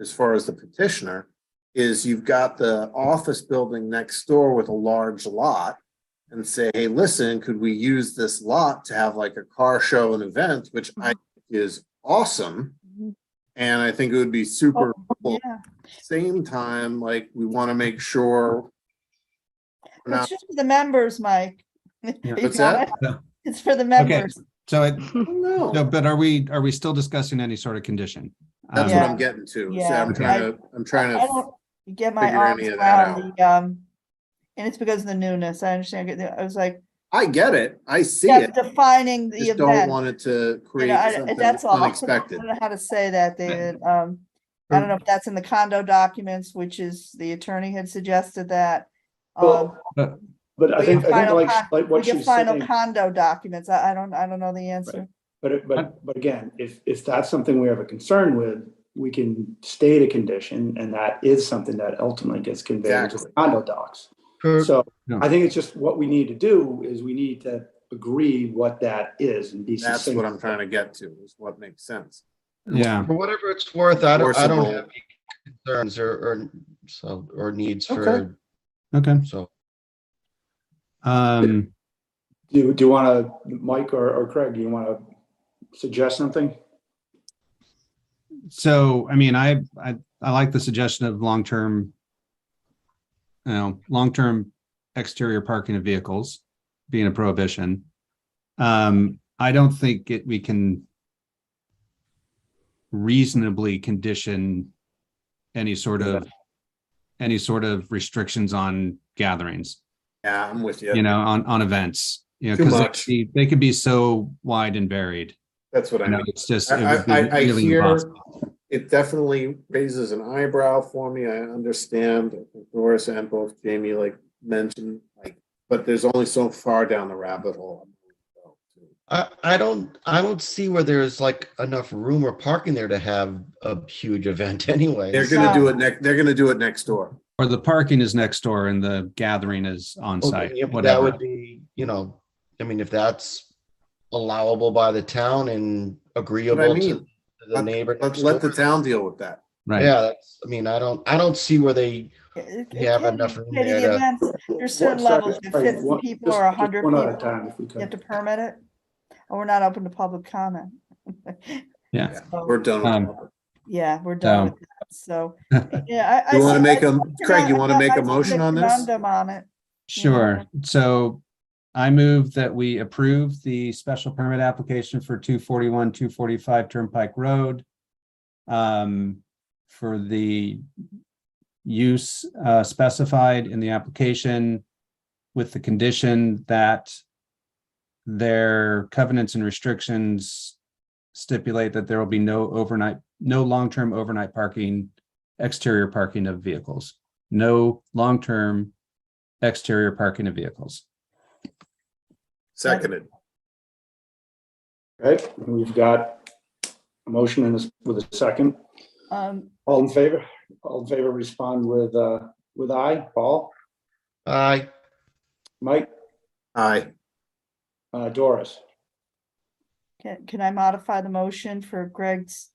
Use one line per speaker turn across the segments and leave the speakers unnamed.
as far as the petitioner, is you've got the office building next door with a large lot and say, hey, listen, could we use this lot to have like a car show and event, which I
Mm-hmm.
think is awesome.
Mhm.
And I think it would be super,
Oh.
cool.
Yeah,
same time, like, we want to make sure we're
it's
not,
just for the members, Mike. You
What's
got
that?
it? It's for the members.
So, it-
no.
no, but are we, are we still discussing any sort of condition?
That's
Um,
what I'm getting to. is that I'm
Yeah.
trying to, I'm trying
I
to,
don't get my
figure
arms
any of that
around the, um, and it's because of the newness. I understand. I get the- I was like,
I get it. I see
yeah,
it.
defining the
Just don't
event.
want it to
You
create
know, I-
something
That's all. I
unexpected.
don't know how to say that, David. Um, I don't know if that's in the condo documents, which is the attorney had suggested that. Um,
Well, But I
we get
think, I think
final
like,
con-
like
we
what
get
she's
final
saying,
condo documents. I, I don't, I don't know the answer.
but, it- but, but again, if, if that's something we have a concern with, we can state a condition and that is something that ultimately gets conveyed to the
Exactly.
condo docs.
Per-
So
Yeah.
I think it's just what we need to do is we need to agree what that is and be
That's
succinct.
what I'm trying to get to, is what makes sense.
Yeah,
For whatever it's worth, I don't, I don't
Enforceable.
have any concerns or, or, so, or needs
Okay.
for,
okay.
so.
Um,
Do, do you want to, Mike or, or Craig, do you want to suggest something?
so, I mean, I, I, I like the suggestion of long-term, you know, long-term exterior parking of vehicles being a prohibition. Um, I don't think it, we can reasonably condition any sort of, any sort of restrictions on gatherings.
Yeah, I'm with
you
you.
know, on, on events, you know,
Too
because they,
much.
could be- they could be so wide and varied.
That's what I
You know,
mean.
it's just, it
I,
would
I- I, I
be really
hear,
impossible.
it definitely raises an eyebrow for me. I understand. I think Doris and both Jamie like mentioned, like, but there's only so far down the rabbit hole.
I, I don't, I don't see where there's like enough room or parking there to have a huge event anyway.
They're gonna do it next, they're gonna do it next door.
Or the parking is next door and the gathering is on site,
That
whatever.
would be, you know, I mean, if that's allowable by the town and agreeable to
mean.
to the neighbor.
Let,
next
let the
door.
town deal with that.
Right.
Yeah, that's, I mean, I don't, I don't see where they,
It-
You
it
have
can
enough
be
room
part of
there
the
to-
events. There's certain
One second,
levels, if
Craig,
fifty
one-
people
just-
or a
just
hundred
One at a
people,
time, if we
you have to
could.
permit it. Or we're not open to public comment.
Yeah.
So,
We're done with
Um,
that.
Yeah, we're done
So-
with that. So, yeah, I.
You
I-
want to
I-
make a,
I-
Craig, you want to make
I-
a
I-
motion on this?
Referendum on it.
Sure. So I move that we approve the special permit application for two forty-one, two forty-five Turnpike Road. Um, for the use uh, specified in the application with the condition that their covenants and restrictions stipulate that there will be no overnight, no long-term overnight parking, exterior parking of vehicles, no long-term exterior parking of vehicles.
Seconded.
Right, we've got a motion and a s- with a second.
Um,
All in favor, all in favor, respond with, uh, with aye. Paul,
I,
Mike,
Aye.
uh, Doris.
can, can I modify the motion for Greg's,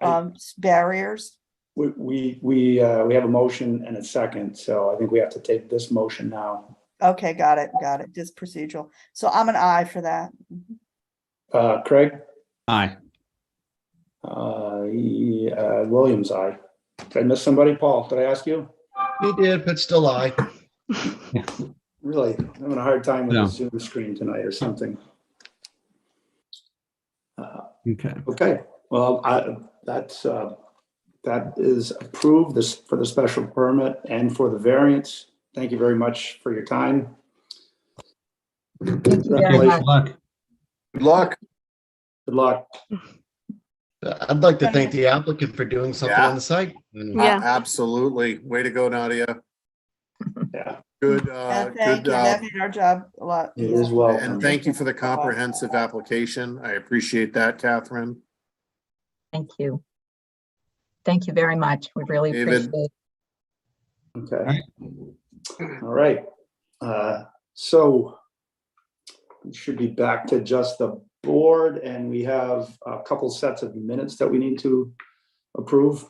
Hey.
um, s- barriers?
We, we, we, uh, we have a motion and a second, so I think we have to take this motion now.
Okay, got it, got it. Just procedural. So I'm an aye for that.
Uh, Craig,
Aye.
uh, he, uh, Williams, aye. Did I miss somebody? Paul, did I ask you?
he did, but still I.
Really, I'm having a hard time with
No.
the Zoom screen tonight or something. Uh,
Okay.
Okay, well, I, that's, uh, that is approved this, for the special permit and for the variance. Thank you very much for your time. Congratulations.
Good luck.
Good luck.
Good luck.
I'd like to thank the applicant for doing something
Yeah.
on the site. And-
A-
Yeah.
Absolutely. Way to go, Nadia.
Yeah,
Good,
Uh,
uh,
Thank
good,
you.
uh,
That made our job a lot.
it
easier.
is well.
and thank you for the comprehensive application. I appreciate that, Catherine.
Thank you. Thank you very much. We really
David?
appreciate it.
Okay. All right. Uh, So we should be back to just the board and we have a couple sets of minutes that we need to approve.